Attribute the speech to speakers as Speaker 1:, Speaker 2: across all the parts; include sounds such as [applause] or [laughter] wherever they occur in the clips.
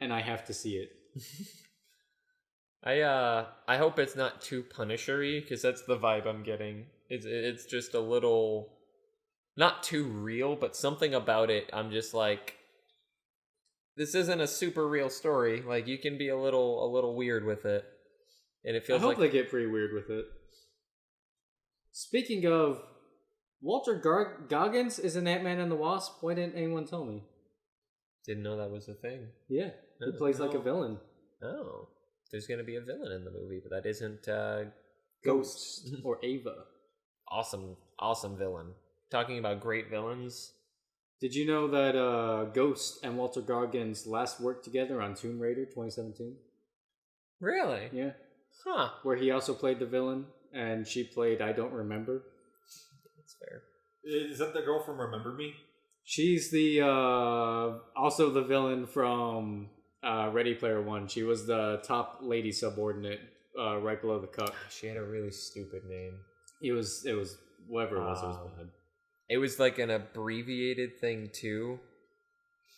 Speaker 1: and I have to see it.
Speaker 2: I uh I hope it's not too punishery because that's the vibe I'm getting. It's it's just a little not too real, but something about it I'm just like this isn't a super real story. Like you can be a little a little weird with it. And it
Speaker 1: I
Speaker 2: feels
Speaker 1: hope
Speaker 2: like
Speaker 1: they get pretty weird with it. Speaking of, Walter Gar- Goggins is in Ant Man and the Wasp. Why didn't anyone tell me?
Speaker 2: didn't know that was a thing.
Speaker 1: Yeah, he
Speaker 2: Oh,
Speaker 1: plays like a
Speaker 2: no.
Speaker 1: villain.
Speaker 2: Oh. There's gonna be a villain in the movie, but that isn't uh
Speaker 1: Ghost or Ava.
Speaker 2: awesome awesome villain. Talking about great villains.
Speaker 1: Did you know that uh, Ghost and Walter Goggins last worked together on Tomb Raider 2017?
Speaker 2: Really?
Speaker 1: Yeah.
Speaker 2: Huh.
Speaker 1: Where he also played the villain and she played I Don't Remember.
Speaker 2: That's fair.
Speaker 3: Is that the girl from Remember Me?
Speaker 1: She's the uh, also the villain from uh, Ready Player One. She was the top lady subordinate uh, right below the cup.
Speaker 2: She had a really stupid name.
Speaker 1: It was it was whatever it was. It was
Speaker 2: Wow.
Speaker 1: bad.
Speaker 2: It was like an abbreviated thing too.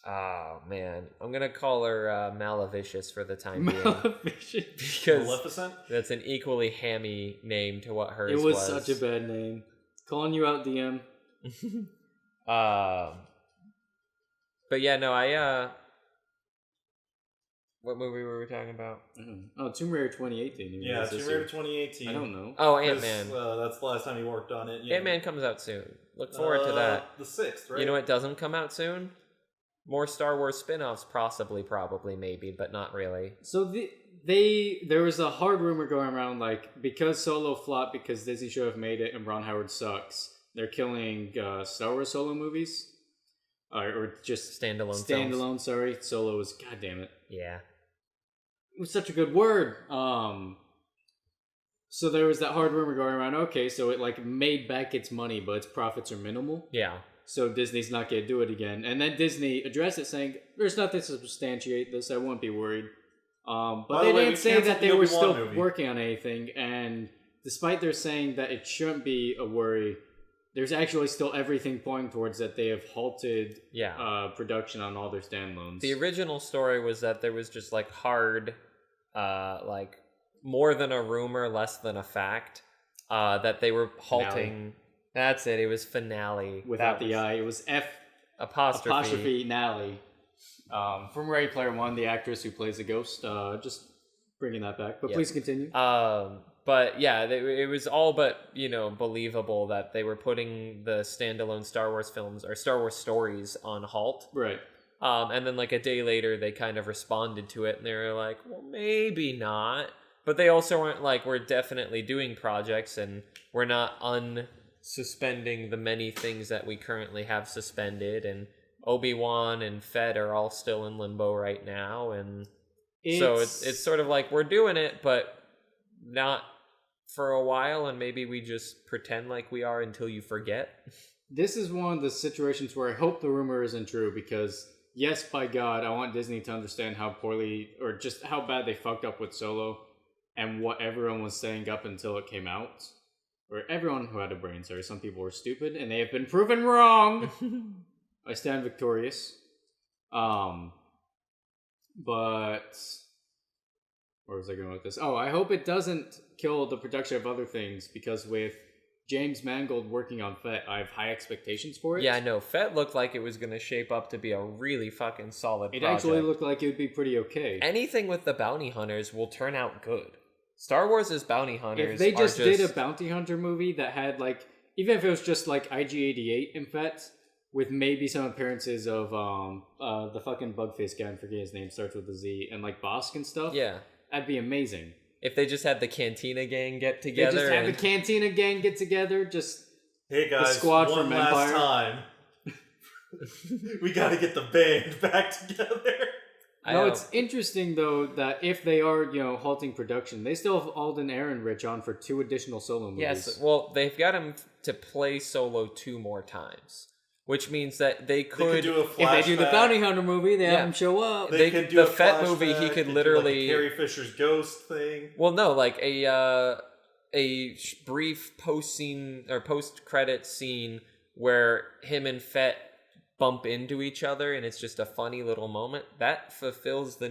Speaker 2: Oh man, I'm gonna call her uh, Malavicious for
Speaker 1: [laughs]
Speaker 2: the time being
Speaker 1: Maleficent.
Speaker 2: because
Speaker 3: Maleficent?
Speaker 2: that's an equally hammy name to what hers
Speaker 1: It was such a bad name. Calling you out, DM.
Speaker 2: um, but yeah, no, I uh, what movie were we talking about?
Speaker 1: Oh, Tomb Raider 2018. you
Speaker 3: Yeah,
Speaker 1: guys,
Speaker 3: Tomb
Speaker 1: this
Speaker 3: Raider
Speaker 1: year.
Speaker 3: 2018.
Speaker 1: I don't know.
Speaker 2: Oh,
Speaker 3: 'Cause,
Speaker 2: Ant Man.
Speaker 3: Uh, that's the last time he worked on it. you know.
Speaker 2: Ant Man comes out soon. Look forward to
Speaker 3: Uh,
Speaker 2: that.
Speaker 3: The sixth, right?
Speaker 2: You know what doesn't come out soon? More Star Wars spin-offs, possibly, probably, maybe, but not really.
Speaker 1: So the, they there was a hard rumor going around like because Solo flopped because Disney should have made it and Ron Howard sucks. They're killing uh, Star Wars Solo movies, uh, or just
Speaker 2: Standalone. films.
Speaker 1: standalone. Sorry, Solo is goddamn it.
Speaker 2: Yeah.
Speaker 1: It was such a good word. Um, so there was that hard rumor going around. Okay, so it like made back its money, but its profits are minimal.
Speaker 2: Yeah.
Speaker 1: so Disney's not going to do it again. And then Disney addressed it, saying, "There's nothing to substantiate this. I won't be worried." Um, but
Speaker 3: By the
Speaker 1: they
Speaker 3: way, we
Speaker 1: didn't say
Speaker 3: canceled
Speaker 1: that
Speaker 3: the
Speaker 1: they were still
Speaker 3: Obi-Wan movie.
Speaker 1: working on anything. And despite their saying that it shouldn't be a worry, there's actually still everything pointing towards that they have halted
Speaker 2: Yeah.
Speaker 1: uh, production on all their standalones.
Speaker 2: the original story was that there was just like hard, uh, like more than a rumor, less than a fact, uh, that they were halting. That's it. It was finale
Speaker 1: Without
Speaker 2: That
Speaker 1: the
Speaker 2: was
Speaker 1: I, it was F
Speaker 2: apostrophe.
Speaker 1: apostrophe Nally um, from Ready Player One, the actress who plays the ghost. Uh, just bringing that back, but
Speaker 2: Yeah.
Speaker 1: please continue.
Speaker 2: Um, but yeah, they, it was all but you know believable that they were putting the standalone Star Wars films or Star Wars stories on halt.
Speaker 1: right.
Speaker 2: Um, and then like a day later, they kind of responded to it, and they were like, "Well, maybe not." But they also weren't like, "We're definitely doing projects, and we're not unsuspending the many things that we currently have suspended." And Obi Wan and Fed are all still in limbo right now, and so it's it's sort of like we're doing it, but not for a while, and maybe we just pretend like we are until you forget.
Speaker 1: this is one of the situations where I hope the rumor isn't true because yes, by God, I want Disney to understand how poorly or just how bad they fucked up with Solo and what everyone was saying up until it came out. Or everyone who had a brain, sorry, some people were stupid and they have been proven
Speaker 2: [laughs]
Speaker 1: wrong. I stand victorious. Um but where was I going with this? Oh, I hope it doesn't kill the production of other things because with James Mangold working on FET, I have high expectations for it.
Speaker 2: Yeah, I know. Fett looked like it was going to shape up to be a really fucking solid
Speaker 1: It
Speaker 2: project.
Speaker 1: actually looked like it would be pretty okay.
Speaker 2: Anything with the bounty hunters will turn out good. Star Wars is bounty hunters.
Speaker 1: if they
Speaker 2: are
Speaker 1: just, did a bounty hunter movie that had like, even if it was just like IG88 in FET, with maybe some appearances of um uh the fucking bug face guy, I'm forgetting his name, starts with a Z, and like Bosk and stuff,
Speaker 2: yeah.
Speaker 1: that'd be amazing.
Speaker 2: If they just had the Cantina gang get
Speaker 1: They
Speaker 2: together,
Speaker 1: just have the
Speaker 2: and-
Speaker 1: Cantina gang get together, just
Speaker 3: Hey guys,
Speaker 1: squad
Speaker 3: one
Speaker 1: from
Speaker 3: last
Speaker 1: Empire.
Speaker 2: [laughs]
Speaker 3: time. we gotta get the band back [laughs] together.
Speaker 2: I
Speaker 1: no,
Speaker 2: don't-
Speaker 1: it's interesting though that if they are, you know, halting production, they still have Alden Ehrenrich on for two additional solo movies.
Speaker 2: yes. Well, they've got him to play solo two more times, which means that they
Speaker 3: They could
Speaker 2: could.
Speaker 3: do a
Speaker 1: if they
Speaker 3: flashback.
Speaker 1: do the bounty hunter movie, they
Speaker 2: Yeah.
Speaker 1: have him show up.
Speaker 3: They,
Speaker 2: they
Speaker 3: could
Speaker 2: could-
Speaker 3: do
Speaker 2: the
Speaker 3: a
Speaker 2: Fett movie, he could
Speaker 3: flashback, they do, like, a
Speaker 2: literally-
Speaker 3: Carrie Fisher's ghost thing.
Speaker 2: well, no, like a uh, a sh- brief post scene or post credit scene where him and Fett bump into each other, and it's just a funny little moment that fulfills the